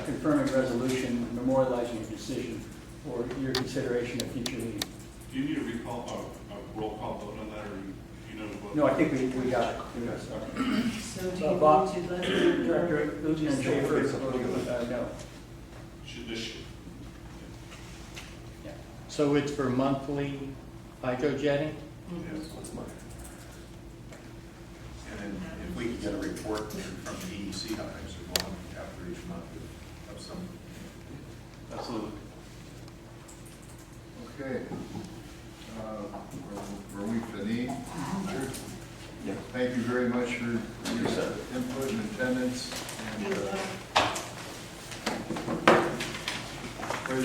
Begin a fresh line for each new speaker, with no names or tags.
confirming resolution memorializing your decision for your consideration at future meeting.
Do you need a recall, a, a roll call vote on that, or you- you know what?
No, I think we, we got it. We got it.
So do
Uh,
you
Bob?
want to let them know?
Director Lieutenant Schaefer is voting, uh, no.
Should this,
So it's for monthly hydro jetting?
Mhm.
What's mine? And then if we could get a report from the E EDC, how things are going after each month of some.
absolutely.
Okay. Uh, Were were we finished? Thank you very much for your input and uh, attendance.